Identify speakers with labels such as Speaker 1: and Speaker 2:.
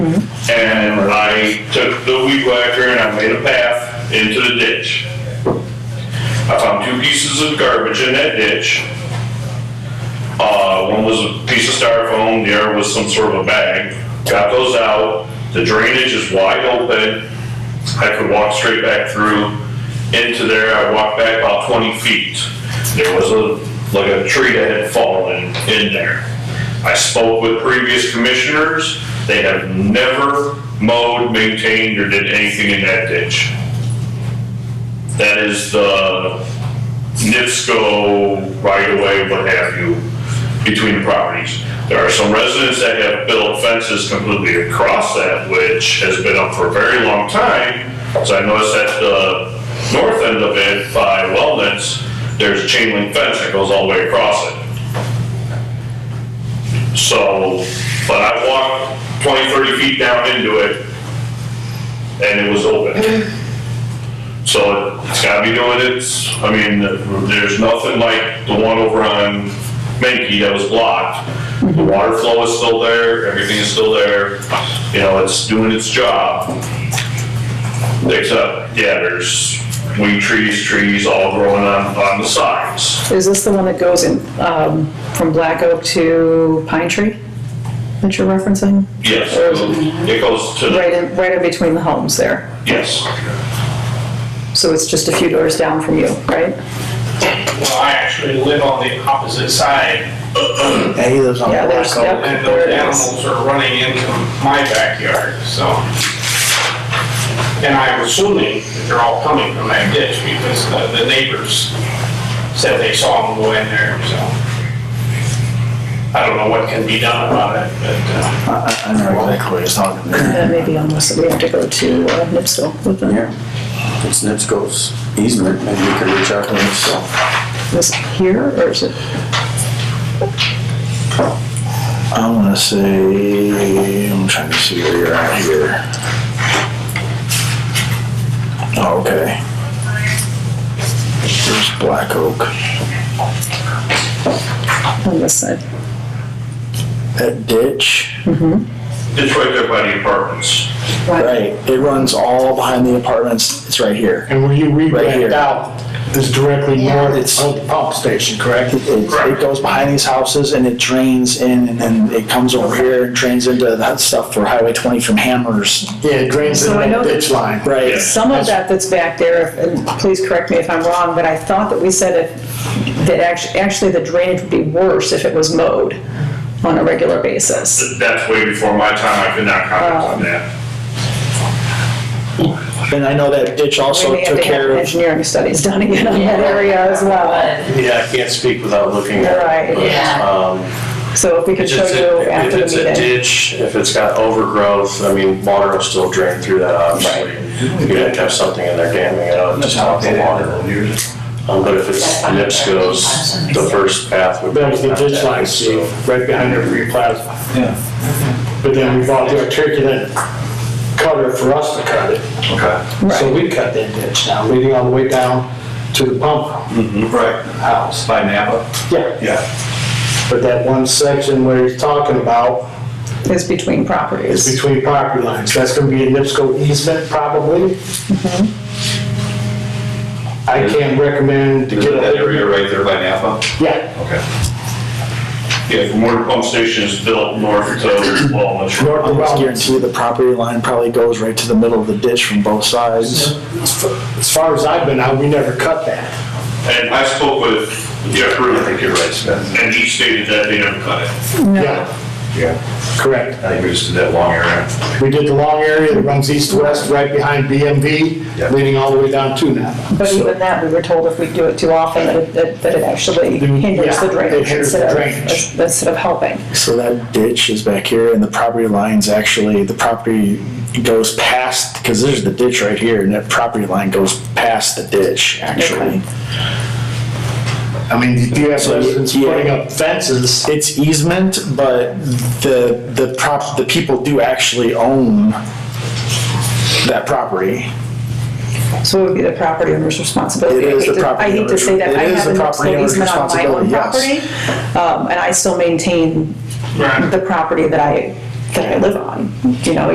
Speaker 1: we took the weed whacker and I made a path into the ditch. I found two pieces of garbage in that ditch. Uh, one was a piece of styrofoam, the other was some sort of a bag. Got those out, the drainage is wide open. I could walk straight back through into there. I walked back about twenty feet. There was a, like a tree that had fallen in there. I spoke with previous commissioners. They have never mowed, maintained, or did anything in that ditch. That is the NIPSCO right away, what have you, between the properties. There are some residents that have built fences completely across that, which has been up for a very long time. So I noticed at the north end of it by Wellness, there's a chain link fence that goes all the way across it. So, but I walked 20, 30 feet down into it and it was open. So it's gotta be doing its, I mean, there's nothing like the one over on Menke that was blocked. The water flow is still there, everything is still there, you know, it's doing its job. Except, yeah, there's weed trees, trees all growing on, on the sides.
Speaker 2: Is this the one that goes in, um, from Black Oak to Pine Tree that you're referencing?
Speaker 1: Yes,
Speaker 2: Or is it
Speaker 1: it goes to, the
Speaker 2: right in, right in between the homes there?
Speaker 1: yes,
Speaker 2: So it's just a few doors down from you, right?
Speaker 3: Well, I actually live on the opposite side,
Speaker 4: Yeah, he lives on
Speaker 2: Yeah,
Speaker 4: Black
Speaker 2: there's,
Speaker 4: Oak.
Speaker 3: and
Speaker 2: yep, there
Speaker 3: those
Speaker 2: it is.
Speaker 3: animals are running into my backyard, so. And I'm assuming that they're all coming from that ditch because the- the neighbors said they saw them go in there, so. I don't know what can be done about it, but, uh,
Speaker 4: I, I- I know exactly what he's talking about.
Speaker 2: That may be on this, we have to go to uh, Nipso with them.
Speaker 4: Yeah. It's NIPSCO's easement, maybe we could reach out to NIPSCO.
Speaker 2: This here, or is it,
Speaker 4: I wanna say, I'm trying to see where you're at here. Oh, okay. There's Black Oak.
Speaker 2: on this side?
Speaker 4: That ditch,
Speaker 1: it's right there by the apartments.
Speaker 4: right, it runs all behind the apartments, it's right here.
Speaker 5: And where you
Speaker 4: Right here.
Speaker 5: regrade out is directly north
Speaker 4: It's-
Speaker 5: of the pump station, correct?
Speaker 4: It, it goes behind these houses and it drains in and then it comes over here and drains into that stuff for Highway 20 from Hammers.
Speaker 5: Yeah, it drains
Speaker 2: So
Speaker 5: in
Speaker 2: I know
Speaker 5: that
Speaker 2: that-
Speaker 5: ditch line.
Speaker 4: Right.
Speaker 2: Some of that that's back there, and please correct me if I'm wrong, but I thought that we said it, that actually, actually the drainage would be worse if it was mowed on a regular basis.
Speaker 1: That's way before my time, I could not comment on that.
Speaker 4: And I know that ditch also
Speaker 2: We may have
Speaker 4: took
Speaker 2: to have
Speaker 4: care of,
Speaker 2: Engineering studies done again on that area as well.
Speaker 6: Yeah, I can't speak without looking at it.
Speaker 2: Right.
Speaker 6: but,
Speaker 7: Yeah.
Speaker 5: uh,
Speaker 6: um,
Speaker 2: So if we could
Speaker 6: If
Speaker 2: show
Speaker 6: it's
Speaker 2: you
Speaker 6: a- if
Speaker 2: after
Speaker 6: it's
Speaker 2: the
Speaker 6: a
Speaker 2: meeting.
Speaker 6: ditch, if it's got overgrowth, I mean, water will still drain through that, obviously. You'd have to have something in there damming it up to stop the water. Um, But if it's NIPSCO's, the first path would be.
Speaker 5: That was the
Speaker 6: not
Speaker 5: ditch
Speaker 6: that,
Speaker 5: line,
Speaker 6: so-
Speaker 5: Steve, right behind there for your plaza. Yeah. But then we bought the articulate cutter for us to cut it.
Speaker 2: Right.
Speaker 5: So we cut that ditch now, leading all the way down to the pump
Speaker 8: Right,
Speaker 5: house.
Speaker 8: by Napa.
Speaker 5: Yeah,
Speaker 8: Mm. Yeah.
Speaker 5: but that one section where he's talking about
Speaker 2: Is between
Speaker 5: is
Speaker 2: properties.
Speaker 5: between property lines. That's gonna be a NIPSCO easement probably. I can't recommend to
Speaker 8: Is
Speaker 5: get
Speaker 8: it
Speaker 5: a.
Speaker 8: that area right there by Napa?
Speaker 5: Yeah,
Speaker 8: Okay.
Speaker 1: Yeah, from where the pump station is built north to Walnut. Road.
Speaker 5: north
Speaker 4: I almost
Speaker 5: of Rollins.
Speaker 4: guarantee the property line probably goes right to the middle of the ditch from both sides.
Speaker 5: As far as I've been out, we never cut that.
Speaker 1: And I spoke with Jeff Rue, I think you're right, Smith, and he stated that they never cut it.
Speaker 5: Yeah,
Speaker 8: Yeah,
Speaker 5: correct.
Speaker 8: I think we just did that long area.
Speaker 5: We did the long area that runs east-west right behind
Speaker 8: Yeah.
Speaker 5: BMV, leading all the way down to Napa.
Speaker 2: But
Speaker 5: So-
Speaker 2: even that, we were told if we do it too often, that it- that, that it actually hinders the
Speaker 5: Yeah, it
Speaker 2: drainage
Speaker 5: hinders the
Speaker 2: instead
Speaker 5: drainage.
Speaker 2: of, instead of helping.
Speaker 4: So that ditch is back here and the property line's actually, the property goes past, because there's the ditch right here and that property line goes past the ditch, actually.
Speaker 5: I mean, you have
Speaker 4: So,
Speaker 5: residents
Speaker 4: yeah.
Speaker 5: putting up fences.
Speaker 4: It's easement, but the, the prop, the people do actually own that property.
Speaker 2: So it would be the property owner's responsibility.
Speaker 4: It is the
Speaker 2: I hate to-
Speaker 4: property
Speaker 2: I hate to say that.
Speaker 4: owner's-
Speaker 2: I
Speaker 4: it is
Speaker 2: have
Speaker 4: the
Speaker 2: an
Speaker 4: property
Speaker 2: upstream
Speaker 4: owner's
Speaker 2: easement on my own property,
Speaker 4: responsibility,
Speaker 2: um, and I still maintain the property that I, that I live on. You know,